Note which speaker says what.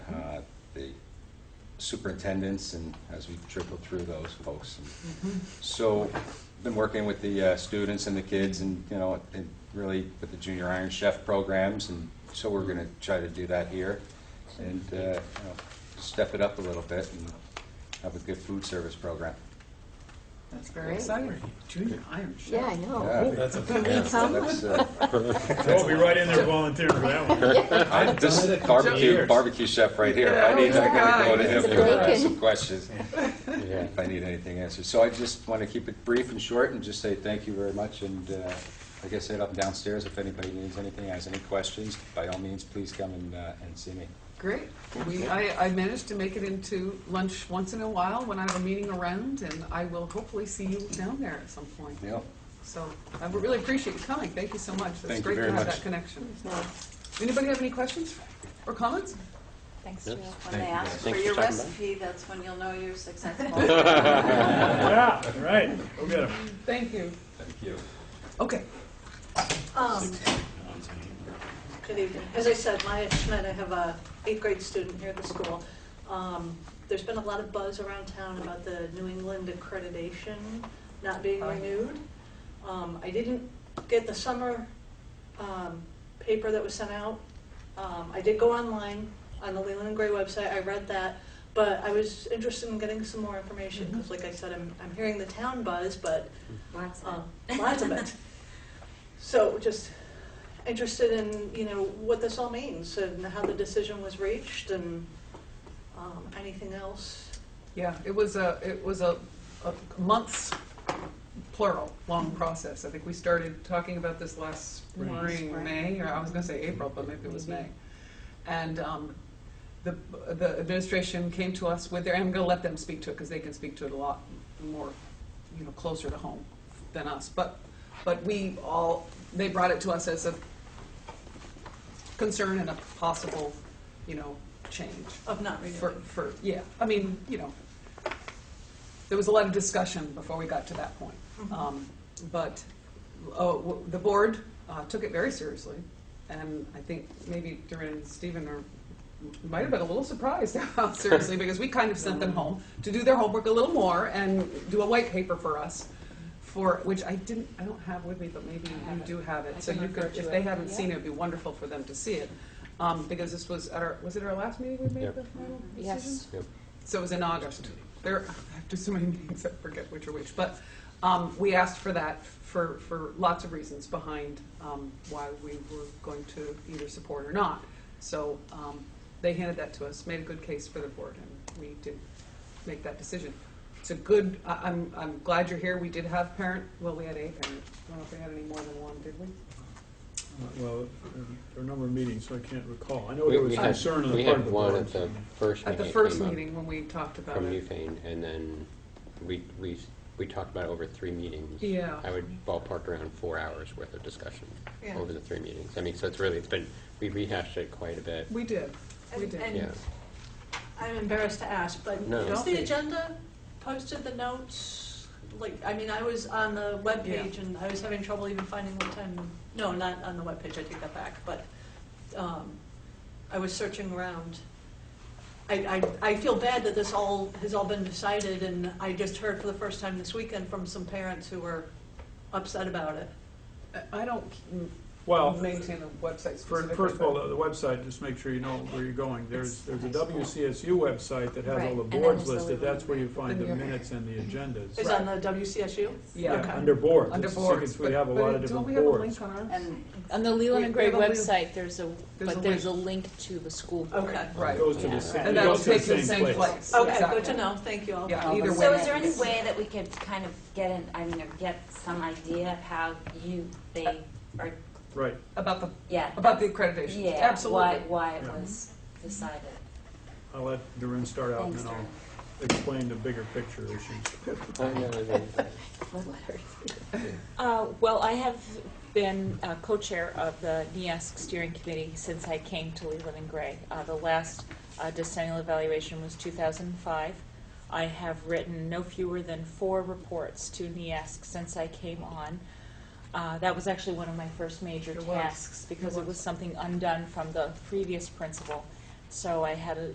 Speaker 1: uh, superintendents and as we trickle through those folks. So, been working with the uh, students and the kids and, you know, and really with the junior Iron Chef programs, and so we're going to try to do that here and, uh, you know, step it up a little bit and have a good food service program.
Speaker 2: That's
Speaker 3: Great.
Speaker 2: very exciting. Junior Iron Chef.
Speaker 3: Yeah, I know.
Speaker 1: Yeah.
Speaker 4: That's a
Speaker 3: Can we come?
Speaker 1: That's, uh,
Speaker 4: We'll be right in there volunteering for that one.
Speaker 1: I- This is barbecue,
Speaker 4: Years.
Speaker 1: barbecue chef right here.
Speaker 2: Yeah,
Speaker 1: I need, I gotta go to him
Speaker 3: he's a
Speaker 1: for uh,
Speaker 3: bacon.
Speaker 1: some questions, if I need anything answered. So I just want to keep it brief and short and just say thank you very much, and uh, like I said, up and downstairs, if anybody needs anything, has any questions, by all means, please come and, uh, and see me.
Speaker 2: Great. We, I, I managed to make it into lunch once in a while when I have a meeting around, and I will hopefully see you down there at some point.
Speaker 1: Yeah,
Speaker 2: So I would really appreciate you coming. Thank you so much. It's
Speaker 1: Thank you
Speaker 2: great
Speaker 1: very
Speaker 2: to have
Speaker 1: much.
Speaker 2: that connection. Anybody have any questions or comments?
Speaker 5: Thanks, Jill.
Speaker 6: When they ask for your recipe, that's when you'll know you're successful.
Speaker 4: Yeah, right. Go get 'em.
Speaker 2: Thank you.
Speaker 1: thank you.
Speaker 2: Okay.
Speaker 7: Um, Good evening. As I said, Maya Schmidt, I have a eighth grade student here at the school. Um, There's been a lot of buzz around town about the New England accreditation not being renewed. Um, I didn't get the summer um, paper that was sent out. Um, I did go online on the Leland and Gray website, I read that, but I was interested in getting some more information, because like I said, I'm, I'm hearing the town buzz, but
Speaker 5: Lots
Speaker 7: uh, lots of it. So just interested in, you know, what this all means and how the decision was reached and um, anything else.
Speaker 2: Yeah, it was a, it was a, a months, plural, long process. I think we started talking about this last spring,
Speaker 5: Spring.
Speaker 2: May, or I was gonna say April, but maybe it was May. And, um, the, the administration came to us with their, and I'm gonna let them speak to it, because they can speak to it a lot more, you know, closer to home than us. But, but we all, they brought it to us as a concern and a possible, you know, change
Speaker 7: Of not
Speaker 2: for,
Speaker 7: renewing.
Speaker 2: for, yeah, I mean, you know, there was a lot of discussion before we got to that point.
Speaker 5: Mm-hmm.
Speaker 2: Um, But, oh, w- the board uh, took it very seriously, and I think maybe Duran and Stephen are, might have been a little surprised how seriously, because we kind of sent them home to do their homework a little more and do a white paper for us, for, which I didn't, I don't have with me, but maybe
Speaker 5: have
Speaker 2: you
Speaker 5: it.
Speaker 2: do have it.
Speaker 5: I
Speaker 2: So
Speaker 5: can
Speaker 2: you
Speaker 5: refer
Speaker 2: could,
Speaker 5: to
Speaker 2: if
Speaker 5: it.
Speaker 2: they haven't
Speaker 5: Yeah.
Speaker 2: seen it, it'd be wonderful for them to see it. Um, Because this was, at our was it our last meeting we made
Speaker 8: Yep.
Speaker 2: the final decision?
Speaker 3: Yes.
Speaker 2: So it was in August. There, I have just so many meetings, I forget which are which. But um, we asked for that for, for lots of reasons behind um, why we were going to either support or not. So um, they handed that to us, made a good case for the board, and we did make that decision. It's a good, I- I'm, I'm glad you're here. We did have parent, well, we had a parent. I don't know if we had any more than one, did we?
Speaker 4: Well, there are a number of meetings, so I can't recall. I know
Speaker 8: We
Speaker 4: there was
Speaker 8: we had,
Speaker 4: concern on the
Speaker 8: we
Speaker 4: part of
Speaker 8: had
Speaker 4: the
Speaker 8: one
Speaker 4: board.
Speaker 8: at the first
Speaker 2: At
Speaker 8: meeting.
Speaker 2: the
Speaker 8: it
Speaker 2: first
Speaker 8: came up
Speaker 2: meeting when we talked about
Speaker 8: From
Speaker 2: it.
Speaker 8: Newfane, and then we, we, we talked about it over three meetings.
Speaker 2: Yeah.
Speaker 8: I would ballpark around four hours worth of discussion
Speaker 7: Yeah.
Speaker 8: over the three meetings. I mean, so it's really, it's been, we rehashed it quite a bit.
Speaker 2: We did. We
Speaker 7: And-
Speaker 2: did.
Speaker 7: and-
Speaker 8: Yeah,
Speaker 7: I'm embarrassed to ask, but
Speaker 8: No.
Speaker 7: is
Speaker 2: Don't
Speaker 7: the
Speaker 2: be.
Speaker 7: agenda posted, the notes? Like, I mean, I was on the webpage and I was having trouble even finding what time, no, not on the webpage, I take that back, but um, I was searching around. I, I, I feel bad that this all, has all been decided and I just heard for the first time this weekend from some parents who were upset about it.
Speaker 2: I- I don't mm,
Speaker 4: Well,
Speaker 2: maintain the website
Speaker 4: for-
Speaker 2: specifically.
Speaker 4: first of
Speaker 2: but-
Speaker 4: all, the the website, just make sure you know where you're going. There's, there's a WCSU website that has
Speaker 5: Right,
Speaker 4: all the
Speaker 5: and then
Speaker 4: boards
Speaker 5: there's the
Speaker 4: listed. That's where you find the
Speaker 2: Then you-
Speaker 4: minutes and the agendas.
Speaker 7: Is on the WCSU?
Speaker 2: Yeah.
Speaker 4: Yeah, Under boards.
Speaker 2: Under
Speaker 4: It's-
Speaker 2: boards.
Speaker 4: We have a
Speaker 2: but-
Speaker 4: lot of
Speaker 2: but Don't
Speaker 4: different
Speaker 2: we have a
Speaker 4: boards.
Speaker 2: link on ours?
Speaker 5: And on the Leland and
Speaker 2: We- we
Speaker 5: Gray
Speaker 2: have a link.
Speaker 5: website, there's a,
Speaker 2: There's a
Speaker 5: but there's a link to the school board.
Speaker 7: Okay.
Speaker 2: Right.
Speaker 4: It goes to
Speaker 8: Yeah.
Speaker 4: the same, it
Speaker 2: And that'll
Speaker 4: goes to
Speaker 2: take you
Speaker 4: the same place.
Speaker 7: Okay,
Speaker 2: Exactly.
Speaker 7: good to know, thank you all.
Speaker 2: Yeah, either way.
Speaker 6: So is there any
Speaker 2: it's-
Speaker 6: way that we could kind of get an, I mean, or get some idea of how you,
Speaker 5: Uh,
Speaker 6: they, or,
Speaker 4: Right.
Speaker 2: About the,
Speaker 6: yeah.
Speaker 2: about the accreditation.
Speaker 6: Yeah. Why,
Speaker 2: Absolutely.
Speaker 6: why it
Speaker 4: Yeah.
Speaker 6: was decided.
Speaker 4: I'll let Durin start out and
Speaker 6: Thanks,
Speaker 4: then
Speaker 6: Durin.
Speaker 4: I'll explain the bigger picture issues.
Speaker 8: I know, I mean,
Speaker 5: Uh, well, I have been uh, co-chair of the NEASC steering committee since I came to Leland and Gray. Uh, the last uh, decennial evaluation was 2005. I have written no fewer than four reports to NEASC since I came on. Uh, that was actually one of my first major
Speaker 2: It was.
Speaker 5: tasks because it was something undone from the previous principal. So I had a,